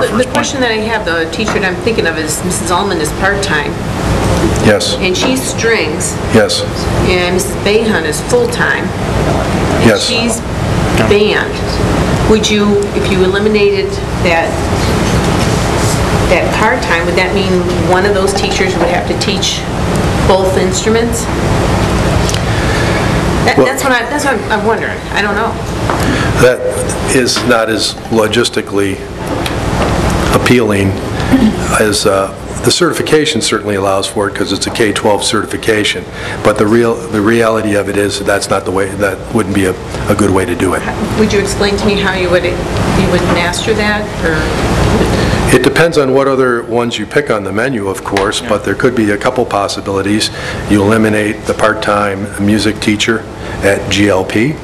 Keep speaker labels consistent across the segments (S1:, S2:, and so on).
S1: The question that I have, the teacher that I'm thinking of is Mrs. Ullman is part-time,
S2: Yes,
S1: and she's strings,
S2: yes,
S1: and Mrs. Bayhun is full-time. And
S2: Yes.
S1: she's band. Would you, if you eliminated that, that part-time, would that mean one of those teachers would have to teach both instruments? That-
S2: Well-
S1: That's what I, that's what I'm- I'm wondering. I don't know.
S2: that is not as logistically appealing as, uh, the certification certainly allows for it because it's a K-12 certification, but the real, the reality of it is that that's not the way, that wouldn't be a, a good way to do it.
S1: Would you explain to me how you would, you would master that, or?
S2: It depends on what other ones you pick on the menu, of course, but there could be a couple possibilities. You eliminate the part-time music teacher at GLP.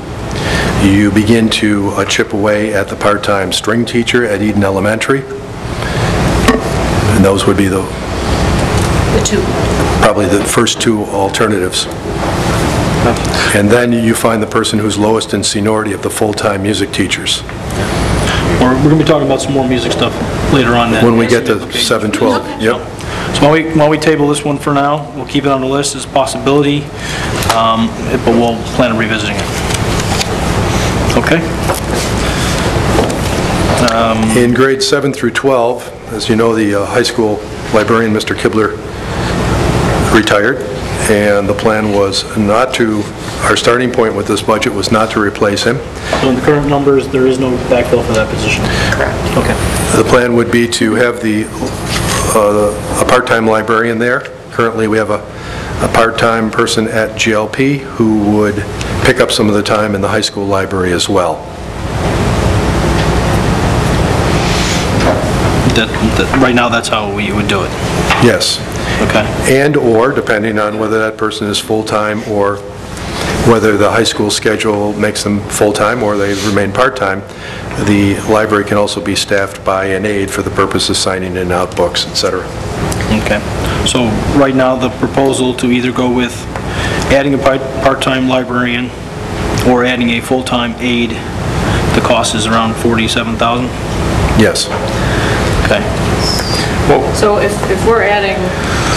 S2: You begin to uh, chip away at the part-time string teacher at Eden Elementary. And those would be the,
S1: The two.
S2: probably the first two alternatives. And then you find the person who's lowest in seniority of the full-time music teachers,
S3: We're we're gonna be talking about some more music stuff later on then.
S2: when we get to 712. Yep.
S3: So while we, while we table this one for now, we'll keep it on the list as a possibility, um, but we'll plan on revisiting it. Okay?
S2: In grades 7 through 12, as you know, the uh, high school librarian, Mr. Kibler, retired, and the plan was not to, our starting point with this budget was not to replace him.
S3: So in the current numbers, there is no backfill for that position? Correct. Okay.
S2: The plan would be to have the, uh, a part-time librarian there. Currently, we have a, a part-time person at GLP who would pick up some of the time in the high school library as well.
S3: That, that, right now, that's how we would do it.
S2: Yes.
S3: Okay.
S2: and/or, depending on whether that person is full-time or whether the high school schedule makes them full-time or they remain part-time, the library can also be staffed by an aide for the purpose of signing in and out books, et cetera.
S3: Okay. So right now, the proposal to either go with adding a part- part-time librarian or adding a full-time aide, the cost is around 47,000?
S2: Yes.
S3: Okay.
S4: So if, if we're adding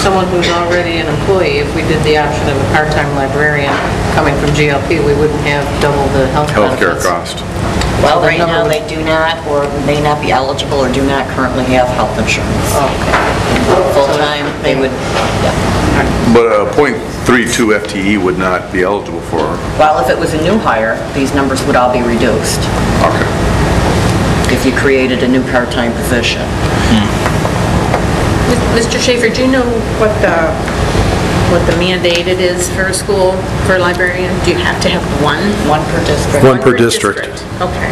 S4: someone who's already an employee, if we did the option of a part-time librarian coming from GLP, we wouldn't have double the health
S2: Healthcare
S4: benefits.
S2: cost.
S5: Well, right now, they do not, or may not be eligible, or do not currently have health insurance. Full-time, they would, yeah.
S6: But a .32 FTE would not be eligible for,
S5: Well, if it was a new hire, these numbers would all be reduced
S6: okay.
S5: if you created a new part-time position.
S1: Mr. Schaefer, do you know what the, what the mandated is for a school, for a librarian? Do you have to have one?
S5: One per district.
S2: One per district.
S1: Okay.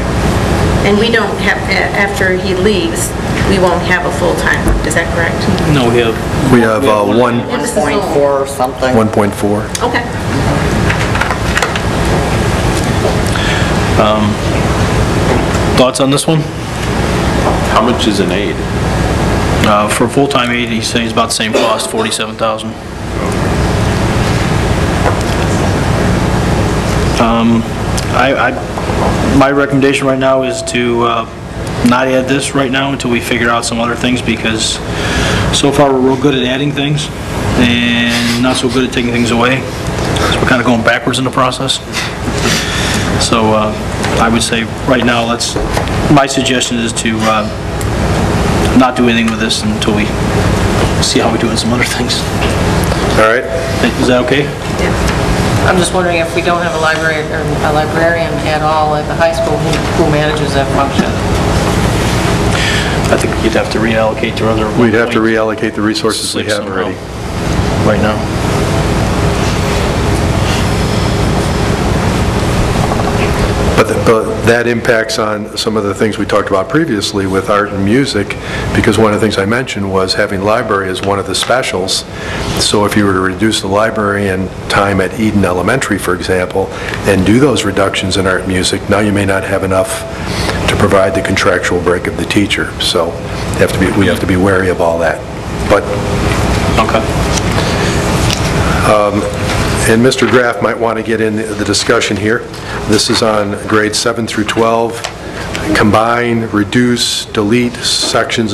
S1: And we don't have, a- after he leaves, we won't have a full-time, is that correct?
S4: Mm-hmm.
S3: No, we have...
S2: We have uh, one,
S1: This is
S5: 1.4 or something.
S2: 1.4.
S1: Okay.
S3: Thoughts on this one?
S6: How much is an aide?
S3: Uh, For a full-time aide, he's saying it's about the same cost, 47,000. Um, I, I, my recommendation right now is to uh, not add this right now until we figure out some other things, because so far, we're real good at adding things, and not so good at taking things away, so we're kind of going backwards in the process. So uh, I would say, right now, let's, my suggestion is to uh, not do anything with this until we see how we do in some other things.
S2: All right?
S3: Is that okay?
S4: I'm just wondering if we don't have a library, or a librarian at all at the high school, who who manages that function?
S3: I think you'd have to reallocate to other...
S2: We'd have to reallocate the resources we have
S3: Somehow.
S2: already.
S3: Right now.
S2: But th- but that impacts on some of the things we talked about previously with art and music, because one of the things I mentioned was having library as one of the specials. So if you were to reduce the library and time at Eden Elementary, for example, and do those reductions in art and music, now you may not have enough to provide the contractual break of the teacher. So you have to be, we have to be wary of all that. But,
S3: Okay.
S2: and Mr. Graff might want to get in the discussion here. This is on grades 7 through 12, combine, reduce, delete sections